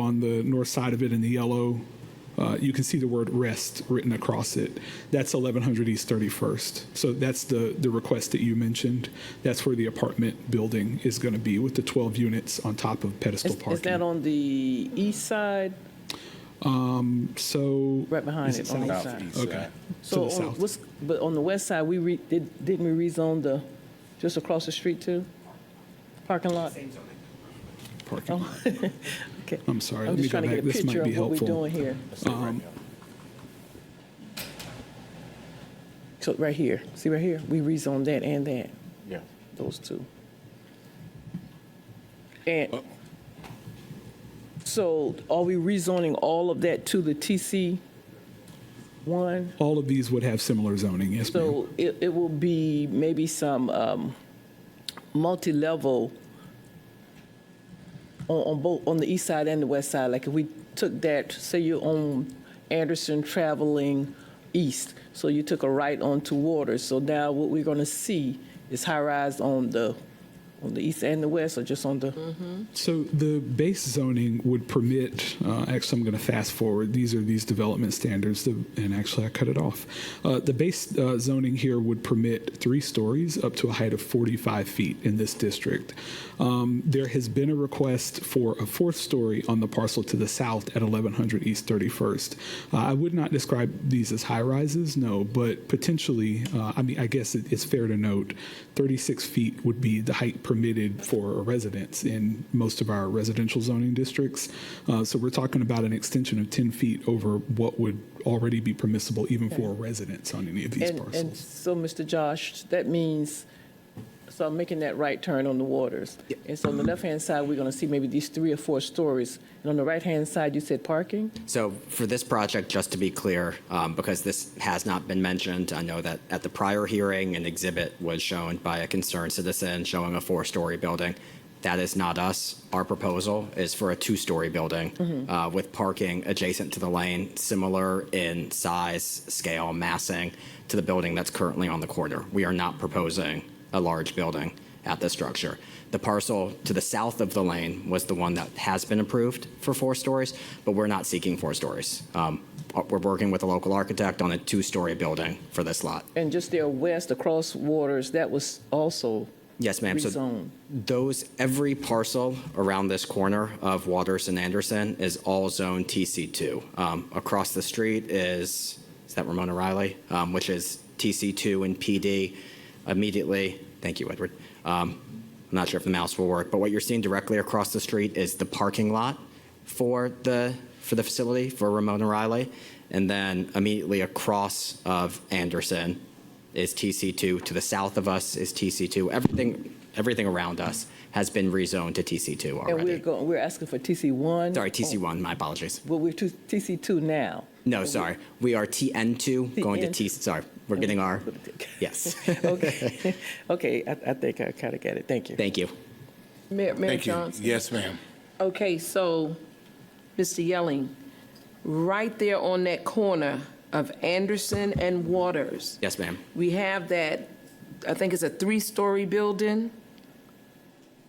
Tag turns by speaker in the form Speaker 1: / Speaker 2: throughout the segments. Speaker 1: on the north side of it in the yellow, uh, you can see the word rest written across it. That's 1100 East 31st. So that's the, the request that you mentioned. That's where the apartment building is going to be with the 12 units on top of pedestal
Speaker 2: Is
Speaker 1: parking.
Speaker 2: is that on the east side,
Speaker 1: So.
Speaker 2: right behind
Speaker 1: Is
Speaker 2: it, on the
Speaker 1: south?
Speaker 2: east side?
Speaker 1: Okay. To
Speaker 2: So,
Speaker 1: the
Speaker 2: on-
Speaker 1: south.
Speaker 2: what's- but on the west side, we re, did, didn't we rezone the, just across the street too? Parking lot?
Speaker 1: Parking. lot.
Speaker 2: Okay.
Speaker 1: I'm sorry,
Speaker 2: oh,
Speaker 1: let
Speaker 2: I'm
Speaker 1: me
Speaker 2: just
Speaker 1: go
Speaker 2: trying to
Speaker 1: back.
Speaker 2: get a
Speaker 1: This
Speaker 2: picture
Speaker 1: might be
Speaker 2: of what we're
Speaker 1: helpful.
Speaker 2: doing here.
Speaker 1: Um,
Speaker 2: So, right here, see right here, we rezoned that and that,
Speaker 3: Yeah.
Speaker 2: those two.
Speaker 1: Oh.
Speaker 2: And, so are we rezoning all of that to the TC one?
Speaker 1: All of these would have similar zoning, yes, ma'am.
Speaker 2: So it, it will be maybe some um, multi-level on, on both, on the east side and the west side. Like if we took that, say you're on Anderson traveling east, so you took a right onto Waters. So now what we're going to see is high-rise on the, on the east and the west, or just on the?
Speaker 1: So the base zoning would permit, uh, actually, I'm going to fast forward. These are these development standards, the- and actually, I cut it off. Uh, The base uh, zoning here would permit three stories up to a height of 45 feet in this district. Um, There has been a request for a fourth story on the parcel to the south at 1100 East 31st. Uh, I would not describe these as high-rises, no, but potentially, uh, I mean, I guess it- it's fair to note, 36 feet would be the height permitted for a residence in most of our residential zoning districts. Uh, So we're talking about an extension of 10 feet over what would already be permissible even for a residence on any of these
Speaker 2: And, and
Speaker 1: parcels.
Speaker 2: so, Mr. Josh, that means, so I'm making that right turn on the waters. And so on the left-hand side, we're going to see maybe these three or four stories. And on the right-hand side, you said parking?
Speaker 4: So for this project, just to be clear, um, because this has not been mentioned, I know that at the prior hearing, an exhibit was shown by a concerned citizen showing a four-story building. That is not us. Our proposal is for a two-story building uh, with parking adjacent to the lane, similar in size, scale, massing to the building that's currently on the corner. We are not proposing a large building at the structure. The parcel to the south of the lane was the one that has been approved for four stories, but we're not seeking four stories. Um, We're working with a local architect on a two-story building for this lot.
Speaker 2: And just there west across waters, that was also
Speaker 4: Yes, ma'am. So
Speaker 2: rezoned.
Speaker 4: Those, every parcel around this corner of Waters and Anderson is all zone TC2. Um, Across the street is, is that Ramona Riley? Um, Which is TC2 and PD immediately. Thank you, Edward. Um, I'm not sure if the mouse will work, but what you're seeing directly across the street is the parking lot for the, for the facility for Ramona Riley. And then immediately across of Anderson is TC2. To the south of us is TC2. Everything, everything around us has been rezoned to TC2
Speaker 2: And we're
Speaker 4: already.
Speaker 2: going, we're asking for TC one? Oh,
Speaker 4: Sorry, TC1, my apologies.
Speaker 2: Well, we're to- TC two now.
Speaker 4: No, sorry. We are TN2 going to
Speaker 2: TN2.
Speaker 4: TC, sorry, we're getting our, yes.
Speaker 2: Okay, okay, I, I think I kind of get it. Thank you.
Speaker 4: Thank you.
Speaker 5: Mayor, Mayor
Speaker 3: Thank you.
Speaker 5: Johnson?
Speaker 3: Yes, ma'am.
Speaker 5: Okay, so, Mr. Yelling, right there on that corner of Anderson and Waters,
Speaker 4: Yes, ma'am.
Speaker 5: we have that, I think it's a three-story building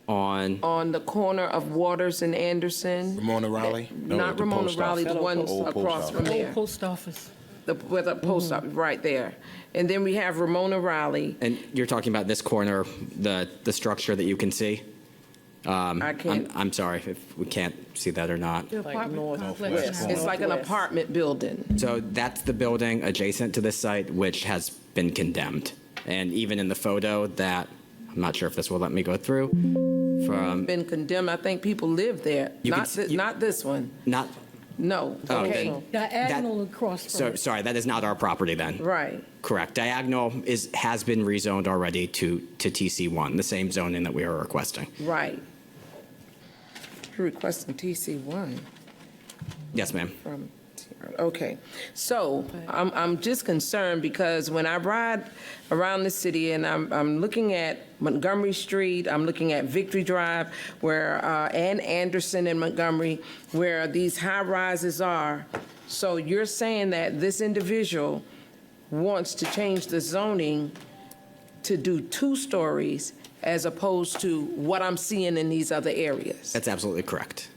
Speaker 4: On,
Speaker 5: on the corner of Waters and Anderson.
Speaker 3: Ramona Raleigh? No,
Speaker 5: Not
Speaker 3: the
Speaker 5: Ramona
Speaker 3: post
Speaker 5: Raleigh, the
Speaker 3: office.
Speaker 5: one
Speaker 3: Old post
Speaker 5: across
Speaker 3: office.
Speaker 5: from there.
Speaker 6: Post office.
Speaker 5: The, where the post office, right there. And then we have Ramona Raleigh.
Speaker 4: and you're talking about this corner, the, the structure that you can see?
Speaker 5: I
Speaker 4: I'm,
Speaker 5: can't,
Speaker 4: I'm sorry if we can't see that or not.
Speaker 2: Like north-
Speaker 5: it's like an
Speaker 2: Northwest.
Speaker 5: apartment building.
Speaker 4: So that's the building adjacent to this site, which has been condemned. And even in the photo that, I'm not sure if this will let me go through, from,
Speaker 5: Been condemned, I think people live there.
Speaker 4: You could
Speaker 5: Not,
Speaker 4: s-
Speaker 5: thi-
Speaker 4: you-
Speaker 5: not this one,
Speaker 4: not,
Speaker 5: no.
Speaker 4: oh,
Speaker 5: Okay.
Speaker 4: then,
Speaker 6: Diagonal across from
Speaker 4: so,
Speaker 6: it.
Speaker 4: sorry, that is not our property then.
Speaker 5: Right.
Speaker 4: Correct. Diagonal is, has been rezoned already to, to TC1, the same zoning that we are requesting.
Speaker 5: Right. You're requesting TC one
Speaker 4: Yes, ma'am.
Speaker 5: from, okay. So I'm, I'm just concerned because when I ride around the city and I'm, I'm looking at Montgomery Street, I'm looking at Victory Drive where, uh, and Anderson and Montgomery, where these high rises are. So you're saying that this individual wants to change the zoning to do two stories as opposed to what I'm seeing in these other areas?
Speaker 4: That's absolutely correct.